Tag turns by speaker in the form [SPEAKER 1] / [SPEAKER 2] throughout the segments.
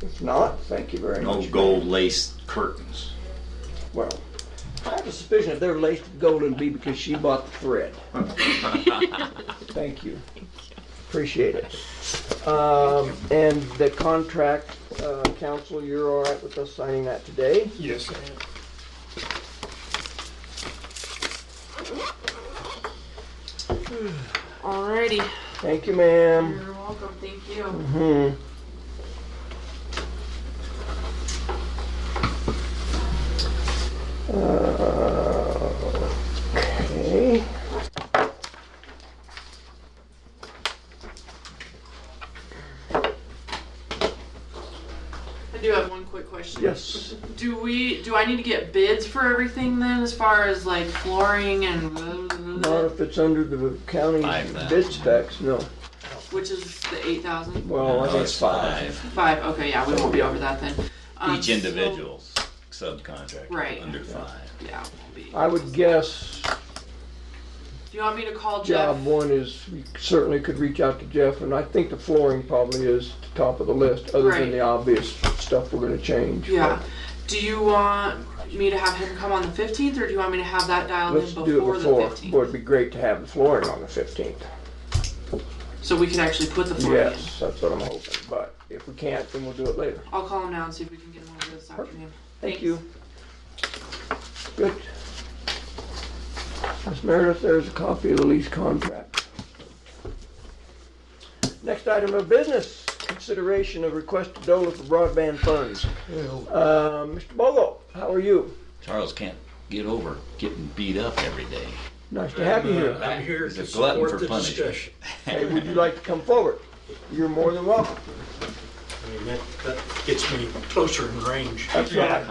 [SPEAKER 1] If not, thank you very
[SPEAKER 2] No
[SPEAKER 1] much.
[SPEAKER 2] gold laced curtains.
[SPEAKER 1] Well, I have a suspicion if they're laced with gold, it'd be because she bought the thread. Thank you. Appreciate it. Um, and the contract, uh, council, you're all right with us signing that today?
[SPEAKER 3] Yes, I am.
[SPEAKER 4] Alrighty.
[SPEAKER 1] Thank you, ma'am.
[SPEAKER 4] You're welcome. Thank you.
[SPEAKER 1] Hmm. Uh, Okay.
[SPEAKER 4] I do have one quick question.
[SPEAKER 1] Yes.
[SPEAKER 4] Do we? Do I need to get bids for everything then, as far as like flooring and
[SPEAKER 1] Not if it's under the county
[SPEAKER 2] Five thousand.
[SPEAKER 1] bid specs, no.
[SPEAKER 4] which is the eight thousand
[SPEAKER 1] Well, Oh, I think it's five.
[SPEAKER 4] five? Okay, yeah, we won't be over that then. Um,
[SPEAKER 2] Each
[SPEAKER 4] so-
[SPEAKER 2] individual's subcontractor,
[SPEAKER 4] Right.
[SPEAKER 2] under five.
[SPEAKER 4] yeah, won't be.
[SPEAKER 1] I would guess
[SPEAKER 4] Do you want me to call Jeff?
[SPEAKER 1] job one is, we certainly could reach out to Jeff, and I think the flooring probably is the top of the list, other than
[SPEAKER 4] Right.
[SPEAKER 1] the obvious stuff we're gonna change.
[SPEAKER 4] Yeah. Do you want me to have him come on the fifteenth, or do you want me to have that dialed
[SPEAKER 1] Let's
[SPEAKER 4] in
[SPEAKER 1] do it
[SPEAKER 4] before,
[SPEAKER 1] before,
[SPEAKER 4] the
[SPEAKER 1] Boy,
[SPEAKER 4] fifteenth,
[SPEAKER 1] it'd be great to have the flooring on the fifteenth.
[SPEAKER 4] so we can actually put the flooring in?
[SPEAKER 1] Yes, that's what I'm hoping, but if we can't, then we'll do it later.
[SPEAKER 4] I'll call him now and see if we can get him over this afternoon.
[SPEAKER 1] Thank
[SPEAKER 4] Thanks.
[SPEAKER 1] you. Good. Miss Meredith, there's a copy of the lease contract. Next item of business, consideration of request to DOLA for broadband funds. Uh, Mr. Bogo, how are you?
[SPEAKER 2] Charles can't get over getting beat up every day.
[SPEAKER 1] Nice to have you here.
[SPEAKER 3] I'm here
[SPEAKER 2] He's a
[SPEAKER 3] to
[SPEAKER 2] glutton for
[SPEAKER 3] support the
[SPEAKER 2] punishment.
[SPEAKER 3] discussion.
[SPEAKER 1] Hey, would you like to come forward? You're more than welcome.
[SPEAKER 3] I mean, that, that gets me closer in range.
[SPEAKER 1] That's right.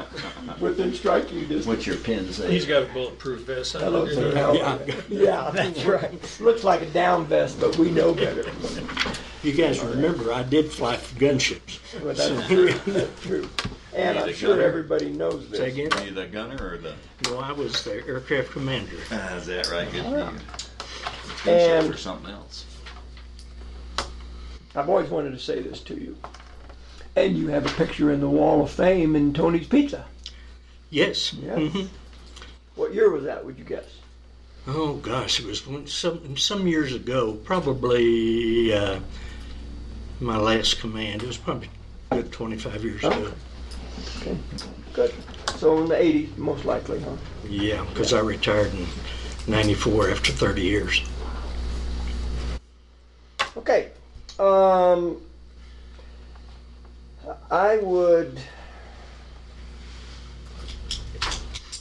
[SPEAKER 1] Within striking distance.
[SPEAKER 2] What's your pin say?
[SPEAKER 5] He's got a bulletproof vest. I
[SPEAKER 1] Hello,
[SPEAKER 5] don't
[SPEAKER 1] sir.
[SPEAKER 5] know.
[SPEAKER 1] How are you? Yeah, that's right. Looks like a down vest, but we know better.
[SPEAKER 3] You guys remember, I did fly for gunships.
[SPEAKER 1] But
[SPEAKER 3] So,
[SPEAKER 1] that's- True. And I'm
[SPEAKER 2] Need a
[SPEAKER 1] sure
[SPEAKER 2] gunner.
[SPEAKER 1] everybody knows
[SPEAKER 3] Say
[SPEAKER 1] this.
[SPEAKER 3] again?
[SPEAKER 2] Are you the gunner or the?
[SPEAKER 3] No, I was the aircraft commander.
[SPEAKER 2] Ah, is that right? Good for you.
[SPEAKER 1] And-
[SPEAKER 2] Gunship or something else.
[SPEAKER 1] I've always wanted to say this to you. And you have a picture in the Wall of Fame in Tony's Pizza.
[SPEAKER 3] Yes.
[SPEAKER 1] Yeah.
[SPEAKER 3] Mhm.
[SPEAKER 1] What year was that, would you guess?
[SPEAKER 3] Oh, gosh, it was when, some, some years ago, probably, uh, my last command. It was probably a good 25 years ago.
[SPEAKER 1] Okay. Good. So in the 80s, most likely, huh?
[SPEAKER 3] Yeah, because I retired in 94 after 30 years.
[SPEAKER 1] Okay. Um, I would,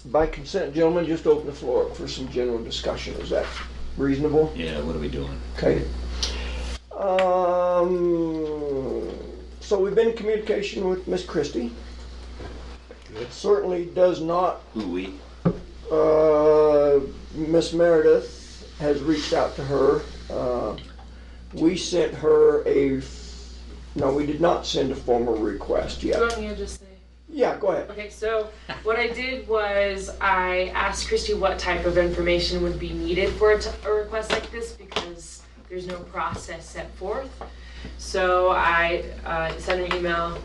[SPEAKER 1] by consent, gentlemen, just open the floor for some general discussion. Is that reasonable?
[SPEAKER 2] Yeah, what are we doing?
[SPEAKER 1] Okay. Um, so we've been in communication with Miss Christie. It certainly does not,
[SPEAKER 2] Who we?
[SPEAKER 1] uh, Miss Meredith has reached out to her. Uh, we sent her a, f- no, we did not send a formal request
[SPEAKER 6] Do you
[SPEAKER 1] yet.
[SPEAKER 6] want me to just say?
[SPEAKER 1] Yeah, go ahead.
[SPEAKER 6] Okay, so what I did was I asked Christy what type of information would be needed for a, t- a request like this because there's no process set forth. So I uh, sent an email.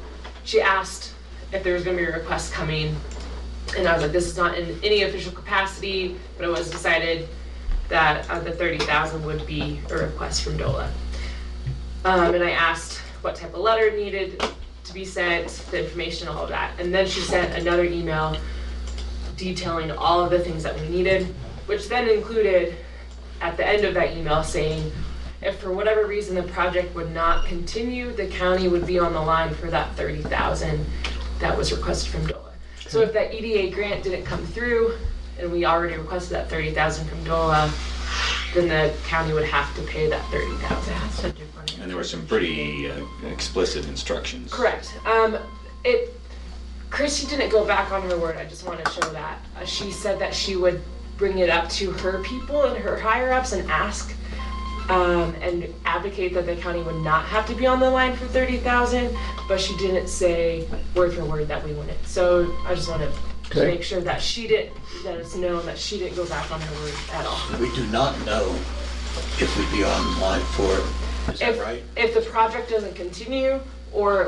[SPEAKER 6] She asked if there was going to be a request coming, and I was like, "This is not in any official capacity," but it was decided that uh, the thirty thousand would be a request from DOLA. Um, and I asked what type of letter needed to be sent, the information, all of that. And then she sent another email detailing all of the things that we needed, which then included at the end of that email saying, if for whatever reason the project would not continue, the county would be on the line for that thirty thousand that was requested from DOLA. So if that EDA grant didn't come through and we already requested that thirty thousand from DOLA, then the county would have to pay that thirty thousand.
[SPEAKER 2] And there were some pretty uh, explicit instructions.
[SPEAKER 6] Correct. Um, it, Christy didn't go back on her word. I just want to show that. Uh, she said that she would bring it up to her people and her higher ups and ask um, and advocate that the county would not have to be on the line for 30,000, but she didn't say word for word that we wouldn't. So I just want to
[SPEAKER 1] Okay.
[SPEAKER 6] make sure that she didn't, that it's known that she didn't go back on her word at all.
[SPEAKER 7] We do not know if we'd be on line for it. Is that
[SPEAKER 6] If,
[SPEAKER 7] right?
[SPEAKER 6] if the project doesn't continue or